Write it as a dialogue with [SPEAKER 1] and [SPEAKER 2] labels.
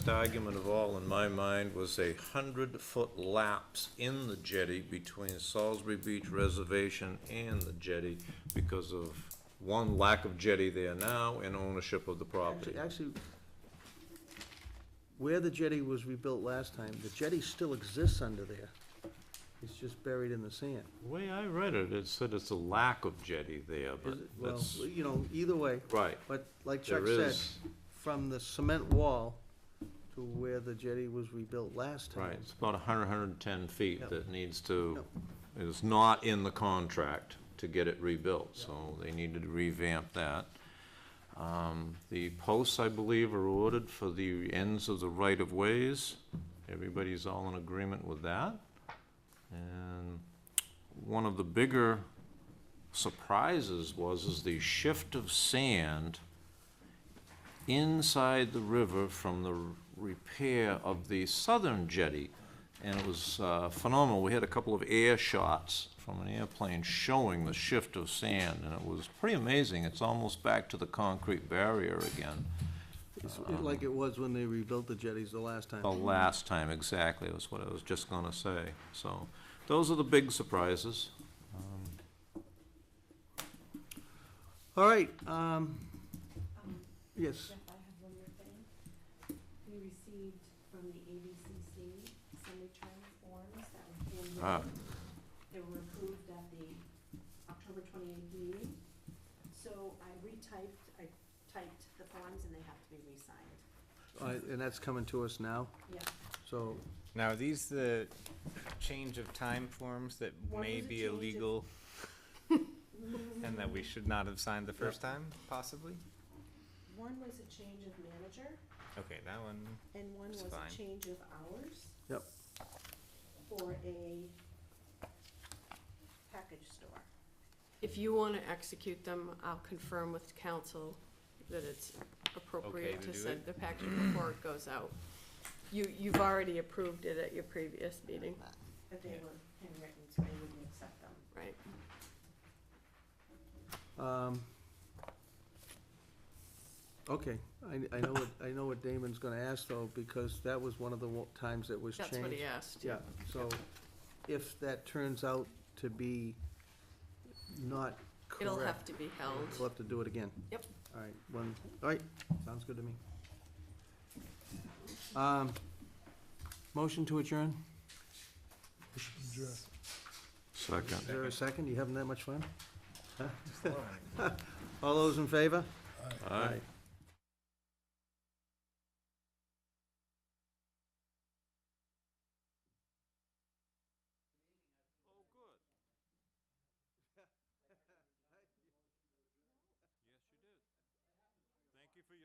[SPEAKER 1] argument of all, in my mind, was a hundred-foot lapse in the jetty between Salisbury Beach Reservation and the jetty because of, one, lack of jetty there now and ownership of the property.
[SPEAKER 2] Actually- Actually, where the jetty was rebuilt last time, the jetty still exists under there. It's just buried in the sand.
[SPEAKER 1] The way I read it, it said it's a lack of jetty there, but
[SPEAKER 2] Is it- Well,
[SPEAKER 1] that's,
[SPEAKER 2] you know, either way,
[SPEAKER 1] right,
[SPEAKER 2] but like Chuck
[SPEAKER 1] there
[SPEAKER 2] said,
[SPEAKER 1] is,
[SPEAKER 2] from the cement wall to where the jetty was rebuilt last time.
[SPEAKER 1] right, it's about a hundred, hundred and ten feet
[SPEAKER 2] Yep.
[SPEAKER 1] that needs to, is not in the contract to get it rebuilt, so they needed to revamp that. Um, the posts, I believe, are ordered for the ends of the right-of-ways. Everybody's all in agreement with that. And one of the bigger surprises was is the shift of sand inside the river from the repair of the southern jetty. And it was uh, phenomenal. We had a couple of air shots from an airplane showing the shift of sand, and it was pretty amazing. It's almost back to the concrete barrier again.
[SPEAKER 2] It's like it was when they rebuilt the jetties the last time.
[SPEAKER 1] The last time, exactly, was what I was just gonna say. So, those are the big surprises. Um,
[SPEAKER 2] All right, um, yes,
[SPEAKER 3] Jeff, I have one more thing. We received from the ABCC some return forms that were
[SPEAKER 1] Ah.
[SPEAKER 3] handwritten. They were approved at the October twenty-eighth meeting. So I retyped, I typed the forms and they have to be re-signed.
[SPEAKER 2] all right, and that's coming to us now,
[SPEAKER 3] Yeah.
[SPEAKER 2] so,
[SPEAKER 4] Now, are these the change of time forms that
[SPEAKER 3] One
[SPEAKER 4] may
[SPEAKER 3] was a
[SPEAKER 4] be
[SPEAKER 3] change of-
[SPEAKER 4] illegal and that we should not have signed the first time, possibly?
[SPEAKER 3] One was a change of manager
[SPEAKER 4] Okay, that one,
[SPEAKER 3] and one
[SPEAKER 4] It's
[SPEAKER 3] was a
[SPEAKER 4] fine.
[SPEAKER 3] change of hours
[SPEAKER 2] yep,
[SPEAKER 3] for a package store.
[SPEAKER 5] If you want to execute them, I'll confirm with council that it's
[SPEAKER 4] Okay
[SPEAKER 5] appropriate
[SPEAKER 4] to
[SPEAKER 5] to
[SPEAKER 4] do
[SPEAKER 5] send
[SPEAKER 4] it?
[SPEAKER 5] the package before it goes out. You, you've already approved it at your previous meeting,
[SPEAKER 3] But they
[SPEAKER 4] Yeah.
[SPEAKER 3] were handwritten, so I wouldn't accept them.
[SPEAKER 5] right?
[SPEAKER 2] um. Okay, I, I know what, I know what Damon's gonna ask though, because that was one of the wa- times that was changed.
[SPEAKER 5] That's what he asked.
[SPEAKER 2] Yeah, so if that turns out to be not correct.
[SPEAKER 5] It'll have to be
[SPEAKER 2] We'll
[SPEAKER 5] held.
[SPEAKER 2] have to do it again.
[SPEAKER 5] Yep.
[SPEAKER 2] All right, one, all right, sounds good to me. Um, motion to adjourn?
[SPEAKER 1] Second.
[SPEAKER 2] Is there a second? You having that much fun?
[SPEAKER 4] just learning.
[SPEAKER 2] All those in favor?
[SPEAKER 1] Aye.